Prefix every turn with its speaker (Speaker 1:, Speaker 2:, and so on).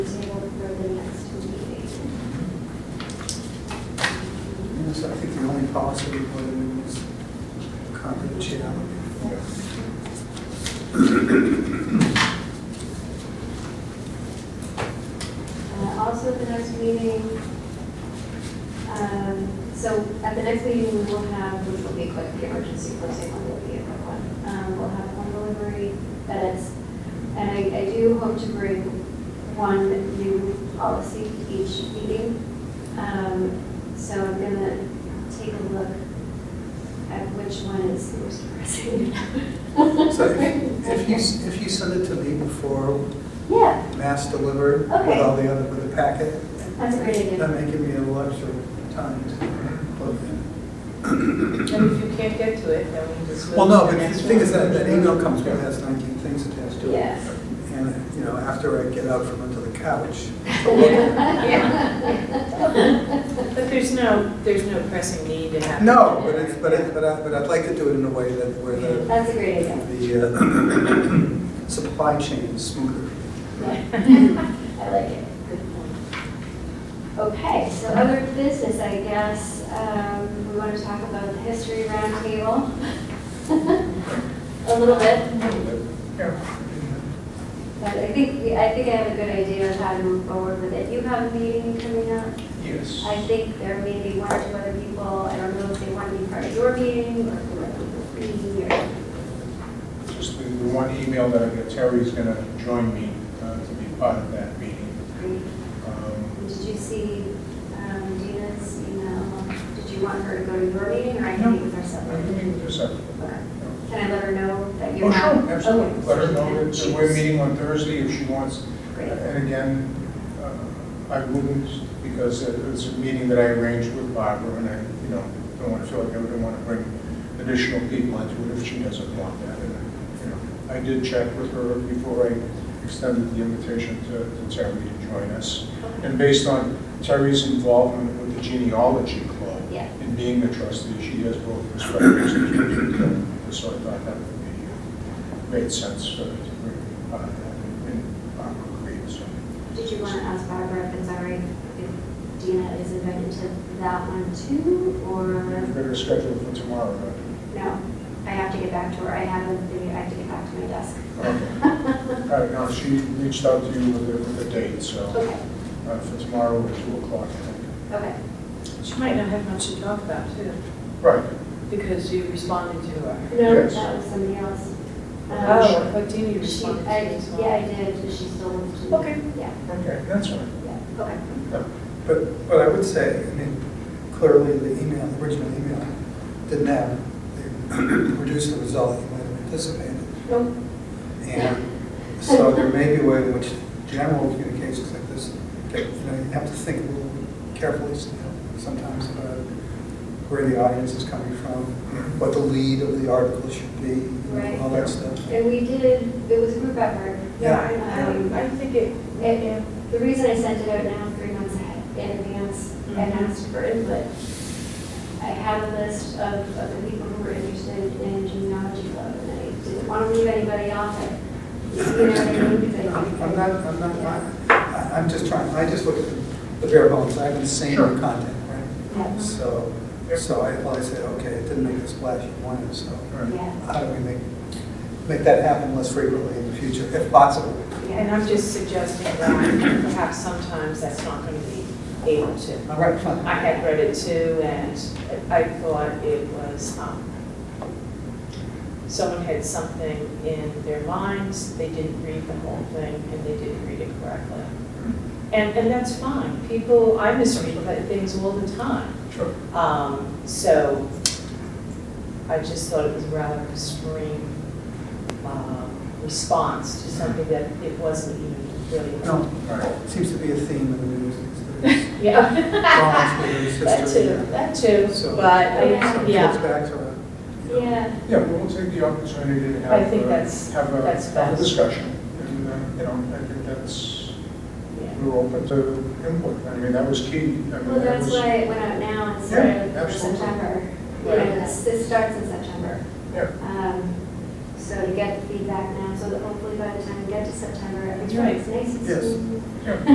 Speaker 1: Uh,
Speaker 2: policy before the meeting is confidentiality.
Speaker 1: Uh, Also, at the next meeting, um, so at the next meeting, we will have, which will be quick, the emergency closing one will be a quick one. Um, We'll have one delivery edits, and I I do hope to bring one new policy each meeting. Um, So I'm going to take a look at which one is the most pressing.
Speaker 2: So if if you, s- if you send it to me before
Speaker 1: Yeah,
Speaker 2: mass delivered with all the other, with the packet,
Speaker 1: that's a great idea.
Speaker 2: that may give me a little extra time to plug in.
Speaker 3: And if you can't get to it, then we just. move
Speaker 2: Well, no,
Speaker 3: to
Speaker 2: but
Speaker 3: the
Speaker 2: the
Speaker 3: next
Speaker 2: thing is
Speaker 3: one.
Speaker 2: that that email comes with, has 19 things attached to it.
Speaker 1: Yeah.
Speaker 2: And, you know, after I get up from under the couch,
Speaker 3: But there's no, there's no pressing need to have.
Speaker 2: no, but it's, but it, but I, but I'd like to do it in a way that, where the,
Speaker 1: That's a great idea.
Speaker 2: the uh, supply chain is smoother.
Speaker 1: I like it. Good point. Okay, so other business, I guess, um, we want to talk about the history roundtable. A little bit, but I think, I think I have a good idea of how to move forward with it. You have a meeting coming up?
Speaker 4: Yes.
Speaker 1: I think there may be one or two other people, I don't know if they want to be part of your meeting or if they want to be, or,
Speaker 4: Just the the one email that I got, Terry's going to join me uh, to be part of that meeting. Um,
Speaker 1: And Did you see um, Dina's email? Did you want her to go to your meeting or I can meet with her
Speaker 4: I
Speaker 1: separately?
Speaker 4: can meet with her separately.
Speaker 1: Okay. Can I let her know that you're
Speaker 4: Oh,
Speaker 1: not?
Speaker 4: sure, absolutely.
Speaker 1: Okay.
Speaker 4: Let her know that that we're
Speaker 1: She's-
Speaker 4: meeting on Thursday if she wants.
Speaker 1: Great.
Speaker 4: And again, uh, I wouldn't, because it was a meeting that I arranged with Barbara, and I, you know, don't want to feel like I would want to bring additional people into it if she doesn't want that. And, you know, I did check with her before I extended the invitation to to Terry to join us.
Speaker 1: Okay.
Speaker 4: And based on Terry's involvement with the genealogy club.
Speaker 1: Yeah.
Speaker 4: And being a trustee, she has both perspectives. in terms of- So I thought that would be, uh, made sense for her to bring uh, that in uh, Barbara Creed, so.
Speaker 1: Did you want to ask Barbara if it's all right if Dina is invited to that one too?
Speaker 4: We've
Speaker 1: Or
Speaker 4: got her scheduled for tomorrow, right?
Speaker 1: no? I have to get back to her. I haven't, been- I have to get back to my desk.
Speaker 4: All right, now, Uh, she reached out to you with a, with a date, so
Speaker 1: Okay,
Speaker 4: uh, for tomorrow at two o'clock, I think.
Speaker 1: okay.
Speaker 3: She might not have much to talk about too,
Speaker 4: Right,
Speaker 3: because you responded to her.
Speaker 1: No,
Speaker 4: Yes.
Speaker 1: that was somebody else. Um,
Speaker 3: Oh, but Dina
Speaker 1: She,
Speaker 3: responded
Speaker 1: I,
Speaker 3: to as well.
Speaker 1: yeah, I did, but she still wants to.
Speaker 3: Okay.
Speaker 1: Yeah,
Speaker 4: okay, that's fine.
Speaker 1: yeah, okay.
Speaker 4: No,
Speaker 2: But, but I would say, I mean, clearly the email, the original email, didn't have, they produced the result you might have anticipated.
Speaker 1: Nope.
Speaker 2: And so there may be a way in which general communications like this, that, you know, you have to think a little carefully you know, sometimes about where the audience is coming from, what the lead of the article should be, you know, all that stuff.
Speaker 1: And we did, it was a group effort.
Speaker 3: Yeah,
Speaker 1: Um,
Speaker 3: I, I, I think it,
Speaker 1: And and the reason I sent it out now, three months ahead, in advance, and
Speaker 3: Mhm.
Speaker 1: asked for input, I had a list of, of the people who were interested in genealogy club, and I didn't want to leave anybody off it. You know what I mean? Because I think-
Speaker 2: I'm not, I'm not, I- I'm just trying, I just look at the- the bare bones, I haven't seen the
Speaker 4: Sure.
Speaker 2: content, right?
Speaker 1: Yeah.
Speaker 2: So, so I, well, I said, okay, it didn't make the splash you wanted, so
Speaker 4: all right.
Speaker 1: Yeah,
Speaker 2: how do we make, make that happen less frequently in the future, if possible?
Speaker 1: yeah.
Speaker 3: and I'm just suggesting that perhaps sometimes that's not going to be able to.
Speaker 2: All right, fine.
Speaker 3: I had read it too, and I thought it was, um, someone had something in their minds, they didn't read the whole thing, and they didn't read it correctly. And, and that's fine, people, I misread th- things all the time.
Speaker 4: Sure.
Speaker 3: Um, So I just thought it was rather extreme um, response to something that it wasn't even really.
Speaker 2: No,
Speaker 4: All right.
Speaker 2: seems to be a theme in the news. these days.
Speaker 3: Yeah.
Speaker 2: Violence within the
Speaker 3: That
Speaker 2: system,
Speaker 3: too, that too,
Speaker 2: So-
Speaker 3: but,
Speaker 1: Yeah.
Speaker 2: So
Speaker 3: I-
Speaker 2: it
Speaker 3: yeah.
Speaker 2: gets back to, a, you know,
Speaker 1: Yeah,
Speaker 4: Yeah, we'll take the opportunity to have.
Speaker 3: I think
Speaker 4: uh,
Speaker 3: that's-
Speaker 4: Have a-
Speaker 3: that's
Speaker 4: have a
Speaker 3: best.
Speaker 4: discussion, and, uh, you know, I think that's,
Speaker 3: Yeah.
Speaker 4: we're open to input, I mean, that was key. I mean,
Speaker 1: well,
Speaker 4: that
Speaker 1: that's
Speaker 4: was-
Speaker 1: why it went out now instead
Speaker 4: Yeah,
Speaker 1: of
Speaker 4: absolutely.
Speaker 1: September. You
Speaker 4: Right.
Speaker 1: know, this, this starts in September.
Speaker 4: Yeah.
Speaker 1: Um, So to get the feedback now, so that hopefully by the time we get to September,
Speaker 3: That's
Speaker 1: everything's
Speaker 3: right.
Speaker 1: nice and
Speaker 2: Yes.
Speaker 1: smooth.
Speaker 4: Yeah.